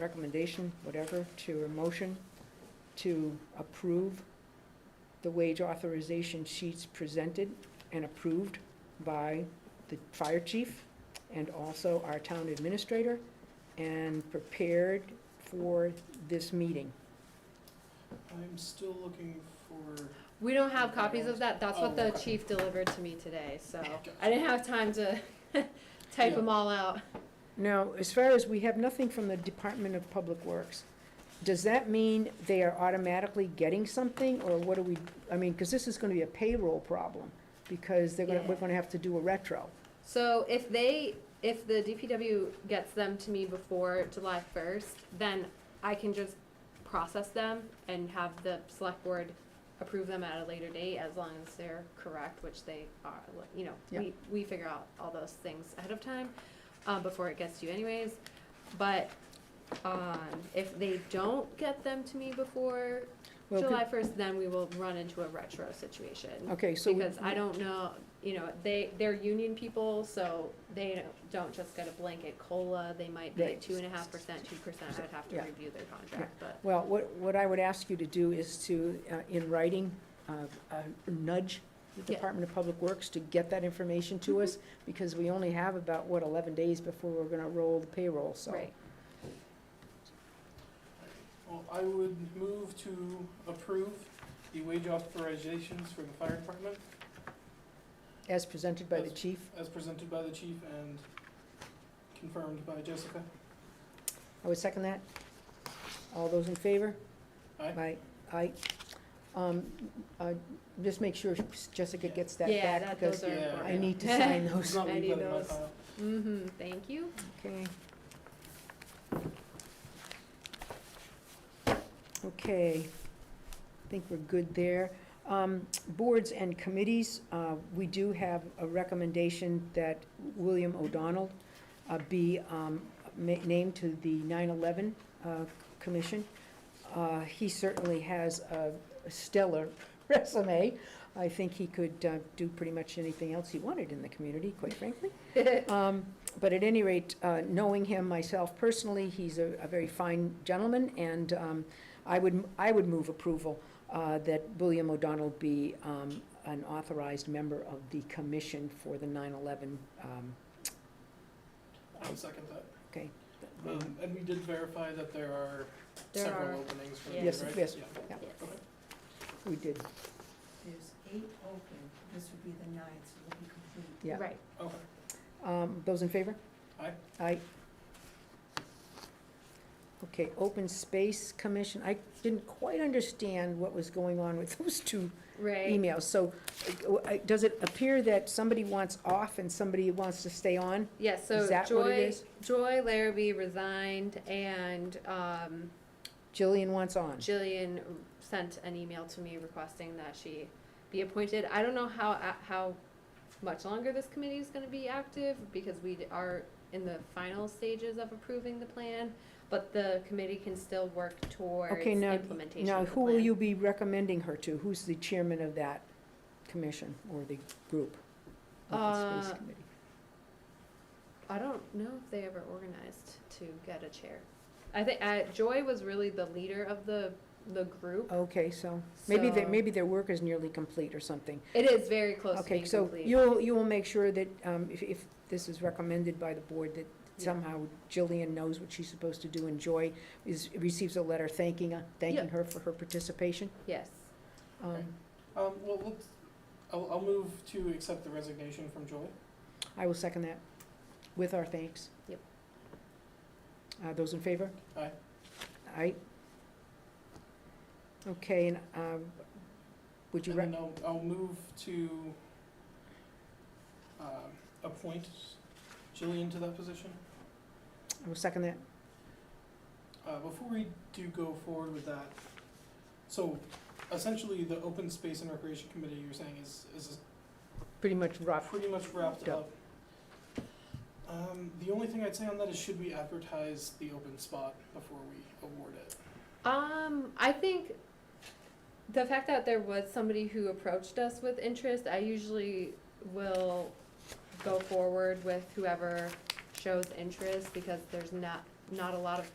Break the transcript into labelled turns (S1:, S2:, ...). S1: recommendation, whatever, to a motion to approve the wage authorization sheets presented and approved by the fire chief and also our town administrator and prepared for this meeting.
S2: I'm still looking for,
S3: We don't have copies of that, that's what
S2: Oh,
S3: the
S2: okay.
S3: chief delivered to me today, so I didn't have time to type them all out.
S1: Now, as far as, we have nothing from the Department of Public Works. Does that mean they are automatically getting something, or what do we, I mean, because this is gonna be a payroll problem, because they're gonna, we're
S3: Yeah.
S1: gonna have to do a retro.
S3: So if they, if the DPW gets them to me before July first, then I can just process them and have the select board approve them at a later date as long as they're correct, which they are, like, you know, we, we figure out all those things ahead of time, uh, before it gets to you anyways. But, um, if they don't get them to me before
S1: Well,
S3: July first, then we will run into a retro situation.
S1: Okay, so.
S3: Because I don't know, you know, they, they're union people, so they don't- don't just get a blanket COLA, they might be
S1: Right.
S3: two and a half percent, two percent, I'd have to
S1: Yeah.
S3: review their contract, but.
S1: Well, what, what I would ask you to do is to, uh, in writing, uh, uh, nudge the
S3: Yeah. Mm-hmm.
S1: Department of Public Works to get that information to us, because we only have about, what, eleven days before we're gonna roll the payroll, so.
S3: Right,
S2: well, I would move to approve the wage authorizations for the fire department
S1: As presented by the
S2: As-
S1: chief,
S2: as presented by the chief and confirmed by Jessica.
S1: I would second that. All those in favor?
S2: Aye.
S1: Aye, aye. Um, uh, just make sure Jessica gets that
S3: yeah,
S1: back,
S3: that, those
S1: because
S2: Yeah,
S3: are.
S1: I need to
S3: yeah.
S1: sign
S2: It's
S1: those.
S2: not me,
S3: Any
S2: but in my
S3: of those?
S2: file.
S3: Mm-hmm, thank you.
S1: Okay. Okay, I think we're good there. Um, Boards and committees, uh, we do have a recommendation that William O'Donnell uh, be um, ma- named to the 9/11 uh, Commission. Uh, He certainly has a stellar resume. I think he could uh, do pretty much anything else he wanted in the community, quite frankly. Um, But at any rate, uh, knowing him myself personally, he's a a very fine gentleman, and um, I would, I would move approval uh, that William O'Donnell be um, an authorized member of the commission for the 9/11. um,
S2: I would second that.
S1: um,
S2: Um, and we did verify that there are
S3: There
S2: several
S3: are-
S2: openings for the,
S3: yeah.
S2: right?
S1: Yes, yes,
S2: Yeah.
S1: yeah.
S3: Yes.
S2: Okay.
S1: We did,
S4: There's eight open, this would be the ninth, so it'll be complete.
S1: yeah.
S3: Right,
S2: Okay,
S1: Um, Those in favor?
S2: Aye.
S1: Aye. Okay, Open Space Commission, I didn't quite understand what was going on with those two
S3: right,
S1: emails. So uh, does it appear that somebody wants off and somebody wants to stay on?
S3: yeah, so
S1: Is that what it
S3: Joy,
S1: is?
S3: Joy Larrabee resigned and, um,
S1: Jillian wants on.
S3: Jillian sent an email to me requesting that she be appointed. I don't know how, how much longer this committee is gonna be active, because we are in the final stages of approving the plan, but the committee can still work towards
S1: Okay, now,
S3: implementation
S1: now
S3: of the
S1: who will
S3: plan.
S1: you be recommending her to? Who's the chairman of that commission or the group? Open Space
S3: Uh,
S1: Committee.
S3: I don't know if they ever organized to get a chair. I think, uh, Joy was really the leader of the, the group,
S1: Okay, so maybe they,
S3: so-
S1: maybe their work is nearly complete or something.
S3: It is very close to
S1: Okay,
S3: being
S1: so
S3: complete.
S1: you'll, you will make sure that um, if, if this is recommended by the board, that
S3: Yeah.
S1: somehow Jillian knows what she's supposed to do and Joy is, receives a letter thanking, uh, thanking her for her participation.
S3: Yes,
S1: Um,
S2: Okay. um, well, let's, I'll, I'll move to accept the resignation from Joy.
S1: I will second that, with our thanks.
S3: Yep.
S1: Uh, those in favor?
S2: Aye.
S1: Aye. Okay, and, um, would you
S2: And
S1: rec-
S2: then I'll, I'll move to, um, appoint Jillian to that position.
S1: I will second that,
S2: Uh, before we do go forward with that, so essentially the Open Space and Recreation Committee you're saying is, is
S1: pretty much rough,
S2: pretty much wrapped
S1: Yeah.
S2: up. Um, the only thing I'd say on that is should we advertise the open spot before we award it?
S3: Um, I think the fact that there was somebody who approached us with interest, I usually will go forward with whoever shows interest because there's not, not a lot of